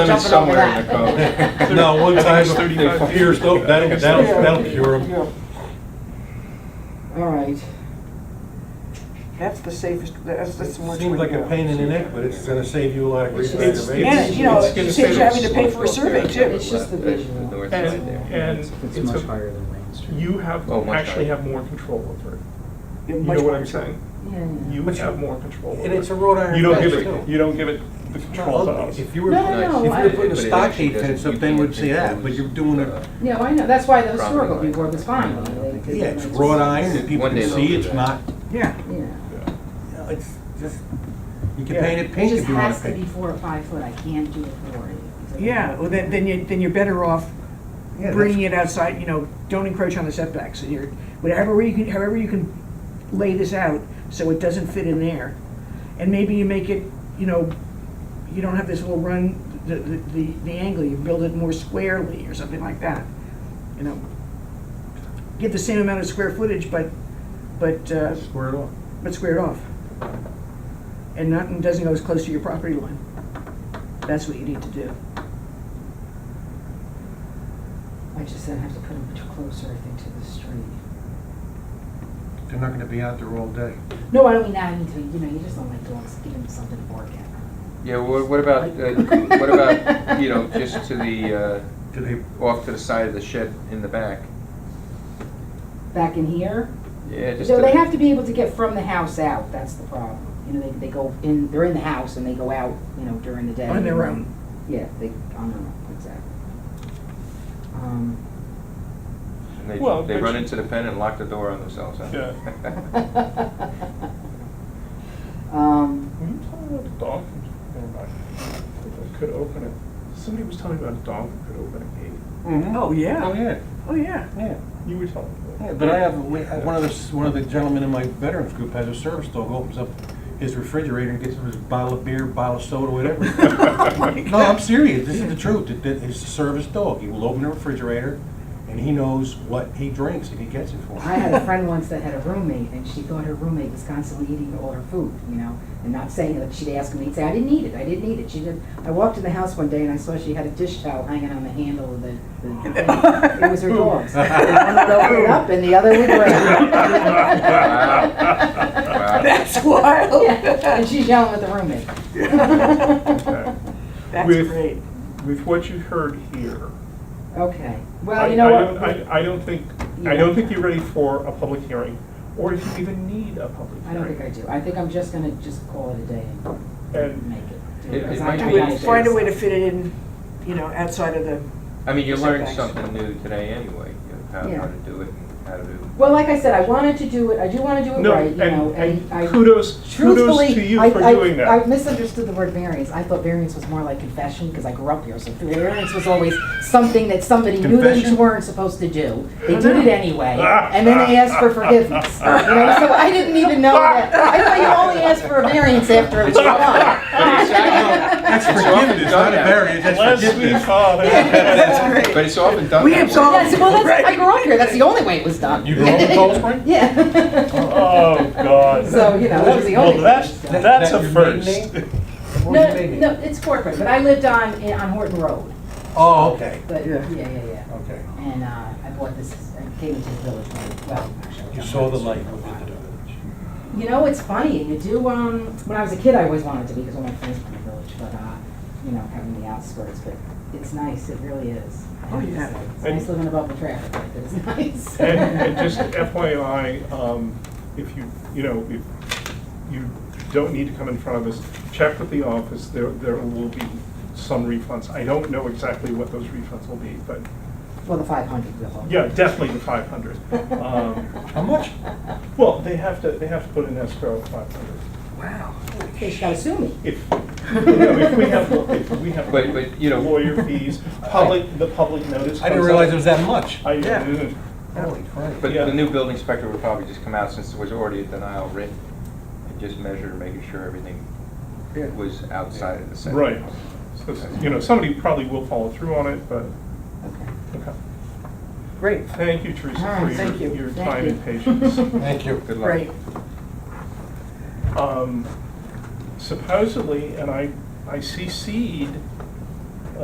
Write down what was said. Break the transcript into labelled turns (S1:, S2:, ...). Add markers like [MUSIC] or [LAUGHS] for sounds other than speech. S1: Limit
S2: Jumping over
S1: somewhere in the
S2: that.
S1: code.
S3: [LAUGHS] No, one
S1: I think
S3: time,
S1: it's 35 feet.
S3: here's, that'll, that'll, that'll cure
S4: Yeah.
S3: them.
S4: All right.
S5: That's the safest, that's, that's the worst way
S3: Seems
S5: to
S3: like a
S5: go.
S3: pain in the neck, but it's gonna save you a lot of grief and
S4: It's-
S3: aggravation.
S5: And, you know,
S1: It's gonna
S5: it
S1: stay
S5: saves you having to pay for a
S1: up there,
S5: survey too.
S4: It's just the
S1: left edge,
S4: visual.
S1: north side
S6: And,
S1: there.
S6: and
S7: It's
S6: it's
S7: much
S6: a,
S7: higher than Wayne Street.
S6: you have,
S1: Oh, much
S6: actually
S1: higher.
S6: have more control over it.
S5: You're
S6: You
S5: much
S6: know what
S5: more-
S6: I'm saying?
S4: Yeah, yeah.
S6: You
S3: But you-
S6: have more control over it.
S3: and it's a wrought iron
S6: You don't give
S3: fence,
S6: it,
S3: too.
S6: you don't give it the control to us.
S3: If you were,
S4: No, no,
S3: if
S4: no,
S3: you
S4: I-
S3: were putting a
S1: But it actually
S3: stockade
S1: doesn't-
S3: fence
S1: you
S3: up, they would
S1: can't
S3: see that,
S1: impose,
S3: but you're doing
S1: uh,
S3: it,
S4: No, I know, that's why the
S1: Property
S4: historical
S1: line.
S4: review was fine. They- they-
S3: yeah, it's wrought iron, and people
S1: One day
S3: can
S1: they'll
S3: see,
S1: do
S3: it's
S1: that.
S3: not,
S5: Yeah,
S4: Yeah.
S3: you know, it's just, you can
S6: Yeah.
S3: paint it
S4: It
S3: pink
S4: just
S3: if you wanna
S4: has to be
S3: paint.
S4: four or five foot, I can't do it four.
S5: yeah, well, then, then you, then you're better off
S3: Yeah,
S5: bringing it outside, you know, don't encroach on the setbacks, and you're, whatever way you can, however you can lay this out, so it doesn't fit in there. And maybe you make it, you know, you don't have this little run, the, the, the- the angle, you build it more squarely or something like that, you know. Get the same amount of square footage, but, but, uh,
S3: that's- Square it off.
S5: but square it off. And not, and doesn't go as close to your property line. That's what you need to do.
S4: I just then have to put them closer, I think, to the street.
S3: They're not gonna be out there all day.
S4: No, I don't mean that, I mean, to- you know, you just don't like dogs, give them something to bark at.
S1: Yeah, wha- what about, uh, what about, you know, just to the, uh,
S3: Do they,
S1: off to the side of the shed in the back?
S4: Back in here,
S1: Yeah, just.
S4: so
S1: to-
S4: they have to be able to get from the house out, that's the problem. You know, they, they go in, they're in the house and they go out, you know, during the day.
S5: On their own.
S4: Yeah, they, on their own, exactly. Um,
S1: and They,
S6: Well,
S1: they
S6: but
S1: run
S6: you-
S1: into the pen and lock the door on themselves, huh?
S6: Yeah.
S4: [LAUGHS] Um,
S6: Were you talking about the dog? Never mind. That Could open it. Somebody was telling me about a dog that could open a gate.
S5: Oh, yeah.
S3: Oh, yeah,
S5: Oh, yeah.
S3: yeah.
S6: You were telling me.
S3: Yeah, but I have, we- I- one of the, one of the gentlemen in my veterans group has a service dog, opens up his refrigerator and gets him his bottle of beer, bottle of soda,
S4: [LAUGHS]
S3: whatever. No, I'm serious, this is the truth, It- it- it's a service dog, he will open the refrigerator, and he knows what he drinks, and he gets it for
S4: I
S3: him.
S4: had a friend once that had a roommate, and she thought her roommate was constantly eating all her food, you know, and not saying it. She'd ask me, he'd say, "I didn't eat it. I didn't eat it." She did. I walked in the house one day and I saw she had a dish towel hanging on the handle of the.
S5: [LAUGHS]
S4: the thing. It was her
S6: [LAUGHS]
S4: dog's. One would open it up, and the other would
S1: Wow.
S4: drink.
S1: Wow.
S5: That's wild.
S4: Yeah, and she's yelling at the roommate.
S6: Okay.
S5: That's
S6: With-
S5: great.
S6: With what you heard here.
S4: Okay.
S6: I-
S4: Well, you know
S6: I
S4: what?
S6: don't- I, I don't think, I
S4: Yeah.
S6: don't think you're ready for a public hearing, or if you even need a public
S4: I don't think I
S6: hearing.
S4: do. I think I'm just gonna just call it a day and
S6: And
S4: make it.
S1: It-
S4: do
S1: it
S4: because I-
S1: might
S4: I
S1: be-
S4: gotta do
S5: Find a way to
S4: this.
S5: fit it in, you know, outside of the,
S1: [LAUGHS] I
S5: [LAUGHS]
S1: mean, you learned
S5: Setbacks.
S1: something new today anyway, you know, how,
S4: Yeah.
S1: how to do it and how to do.
S4: Well, like I said, I wanted to do it, I do want to do it
S6: No,
S4: right, you
S6: and-
S4: know, and I.
S6: and kudos- kudos
S4: truthfully,
S6: to you
S4: I-
S6: for
S4: I-
S6: doing that.
S4: I misunderstood the word variance, I thought variance was more like confession, because I grew up here, so variance was always something that somebody knew they
S3: Confession?
S4: weren't supposed to do. They did it anyway, and then they asked for forgiveness, you know, so I didn't even know that. I thought you only asked for a variance after it was done.
S1: But
S4: [LAUGHS]
S1: it's often- it's
S3: That's
S1: often done
S3: forgiveness, not a
S1: that way.
S3: barrier, that's
S6: Last week,
S4: [LAUGHS]
S3: forgiveness. [LAUGHS]
S6: Father.
S1: But it's often done.
S5: We
S1: that way.
S5: absolve-
S4: Yes, well, that's, I grew up here, that's the only way it was done.
S3: You grew up in Cold Spring?
S4: Yeah.
S6: Oh, God.
S4: So, you know, it was the only.
S6: Well, that's,
S4: way it was done.
S6: that's a
S3: That your maiden
S6: first.
S3: name?
S4: No, no, it's corporate, but I lived on, in- on Horton Road,
S3: Oh, okay,
S4: but,
S5: Yeah.
S4: yeah, yeah, yeah.
S6: Oh.
S3: okay.
S4: And uh, I bought this, I came into the village, when- well, actually. I was
S3: You
S4: on
S3: saw the
S4: Main Street
S3: light
S4: for a
S3: within the
S4: while.
S3: village.
S4: You know, it's funny, you do, um, when I was a kid, I always wanted to be, because all my friends were in the village, but, uh, you know, having the outskirts, but it's nice, it really is. I
S5: Oh,
S4: have to
S5: yeah.
S4: say. It's
S6: And-
S4: nice living above the traffic, like, it's [LAUGHS] nice.
S6: And, and just FYI, um, if you, you know, if you don't need to come in front of us, check with the office, there, there will be some refunds. I don't know exactly what those refunds will be, but,
S4: Well, the five hundred will.
S6: yeah, Um, definitely the five hundred.
S3: How much?
S6: Well, they have to, they have to put in escrow five hundred.
S4: They just gotta sue me.
S6: If, you know, if we have, if we have
S1: But- but, you know-
S6: lawyer fees, public, the public notice
S3: I didn't
S6: comes
S3: realize
S6: out.
S3: it was that much.
S6: I
S5: Yeah.
S6: didn't.
S3: Holy crap.
S1: But
S6: Yeah.
S1: the new building inspector would probably just come out since there was already a denial written and just measure, making sure everything
S3: Yeah.
S1: was outside of the setback.
S6: Right. So, you know, somebody probably will follow through on it, but,
S4: Okay.
S6: okay.
S5: great,
S6: Thank you, Teresa,
S4: All right,
S6: for
S5: thank
S6: your,
S5: you.
S6: your
S4: Thank
S6: time
S4: you. [LAUGHS]
S6: and patience.
S3: Thank you.
S1: Good luck.
S5: great.
S6: Um, Supposedly, and I, I CC'd